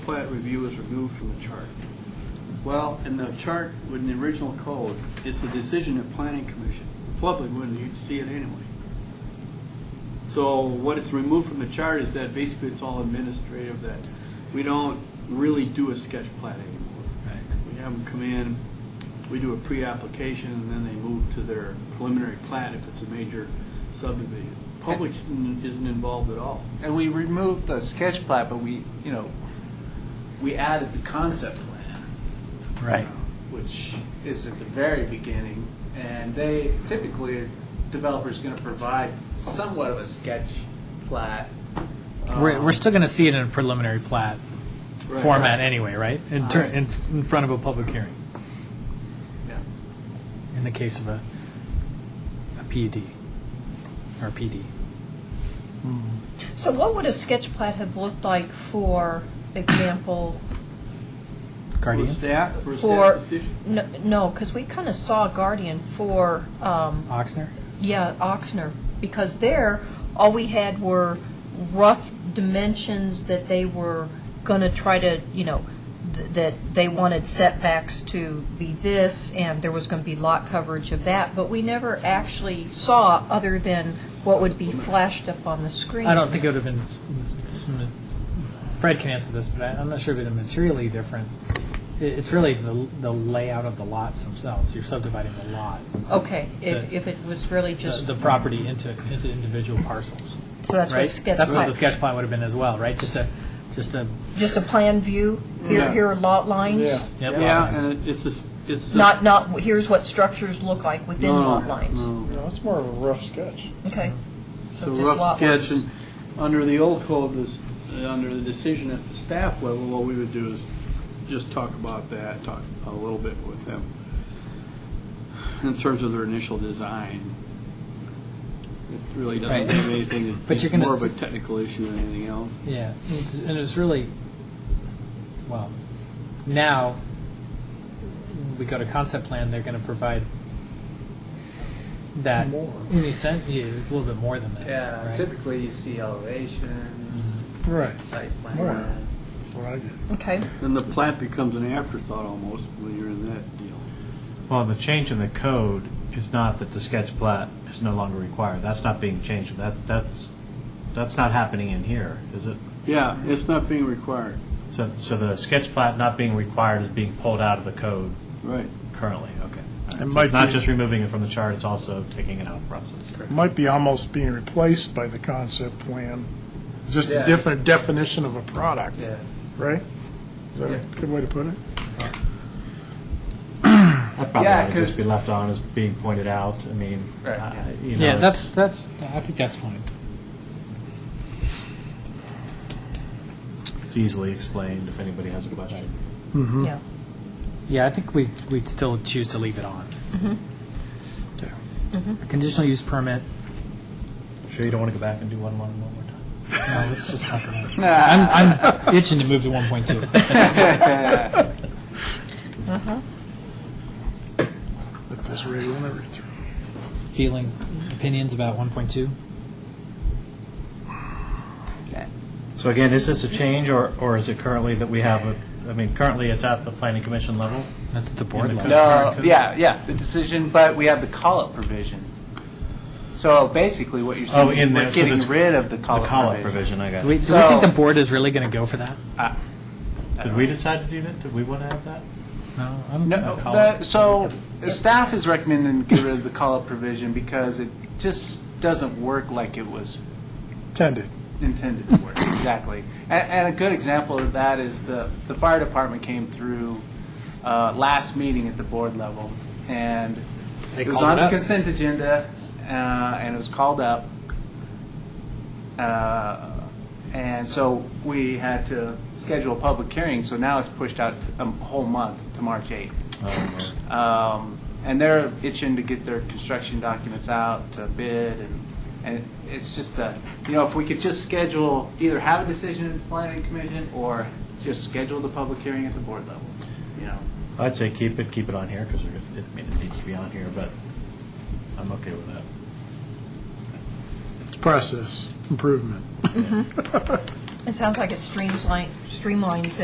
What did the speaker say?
Plat review is removed from the chart. Well, in the chart, in the original code, it's the decision of planning commission. The Public wouldn't see it anyway. So what is removed from the chart is that basically it's all administrative, that we don't really do a sketch plat anymore. We have them come in, we do a pre-application, and then they move to their preliminary plat if it's a major subdivision. Public isn't isn't involved at all. And we removed the sketch plat, but we, you know, we added the concept plan. Right. Which is at the very beginning, and they, typically, a developer's gonna provide somewhat of a sketch plat. We're, um, we're still going to see it in a preliminary plat Right. format anyway, right? In, ter- Right. in, in front of a public hearing, yeah. in the case of a, a PUD or E PD. So what would a sketch plat have looked like, for example, Guardian? For staff, for staff for, decision. n- no, because we kind of saw Guardian for, um, Oxner? yeah, Oxner, because there, all we had were rough dimensions that they were going to try to, you know, th- that they wanted setbacks to be this, and there was going to be lot coverage of that, but we never actually saw other than what would be flashed up on the screen. I don't think it would have been, s- s- s- Fred can answer this, but I- I'm not sure if it would have been materially different. I- It's really the, the layout of the lots themselves. You're subdividing the lot, Okay, if The- if it was really the, just, the property into, into individual parcels, so Oh, that's what right? a sketch plat. That's what the sketch plan would have been as well, right? Just a, just a, Just a plan view, here, Yeah. here are lot lines? yep. Yeah, and it's just, it's just. Not, not, here's what structures look like within No, lot lines? no. No, it's more of a rough sketch. Okay. It's So a just rough lot sketch, lines. and under the old code, this, uh, under the decision at the staff level, what we would do is just talk about that, talk a little bit with them in terms of their initial design. It really doesn't Right. have anything, But it's you're gonna more of a s- technical issue than anything else. Yeah, it's- and it's really, well, now we go to concept plan, they're going to provide that. More. In a sense, yeah, it's a little bit more than that. Yeah, right? Uh, typically you see elevations, Right. site Right. plan. What I did. Okay, Then the plant becomes an afterthought almost when you're in that deal. Well, the change in the code is not that the sketch plat is no longer required. That's not being changed. That, that's, that's not happening in here, is it? Yeah, it's not being required. So, so the sketch plat not being required is being pulled out of the code Right. currently, okay. All right. It So might It's not be- just removing it from the chart, it's also taking it out of process. It Might be almost being replaced by the concept plan, just Yeah. a different definition of a product, Yeah. right? Is that Yeah. a good way to put it? That probably Yeah, ought to 'cause- just be left on as being pointed out. I mean, Right, I- yeah. you know. Yeah, that's, that's, I think that's fine. It's easily explained if anybody has a question. yeah. Yeah, I think we, we'd still choose to leave it on. Mm-hmm. Yeah. Conditional use permit, Sure you don't want to go back and do one, one, one more time? no, let's just talk about it. I'm, I'm itching to move to 1.2. Let this rate run everything. Feeling, opinions about 1.2? So again, is this a change, or, or is it currently that we have, a? I mean, currently it's at the planning commission level? That's at the board In the level. No, yeah, yeah, the decision, but we have the call-up provision. So basically, what you're Oh, saying, in we're there, so getting this- rid of the The call-up call-up provision. provision, I got Do we, it. do we think So- the board is really going to go for that? Did we decide to do that? Did we want to have that? No, I don't No, think so. the- so the staff is recommending get rid of the call-up provision because it just doesn't work like it was Intended. intended to work, exactly. And, and a good example of that is the, the fire department came through uh, last meeting at the board level, and They it was called on it the up. consent agenda, uh, and it was called up. Uh, and so we had to schedule a public hearing, so now it's pushed out a whole month to March 8th. Um, And they're itching to get their construction documents out to bid, and, and it's just a, you know, if we could just schedule, either have a decision in the planning commission, or just schedule the public hearing at the board level, you know? I'd say keep it, keep it on here, because it, I mean, it needs to be on here, but I'm okay with that. It's process improvement. It sounds like it streamlines, streamlines it.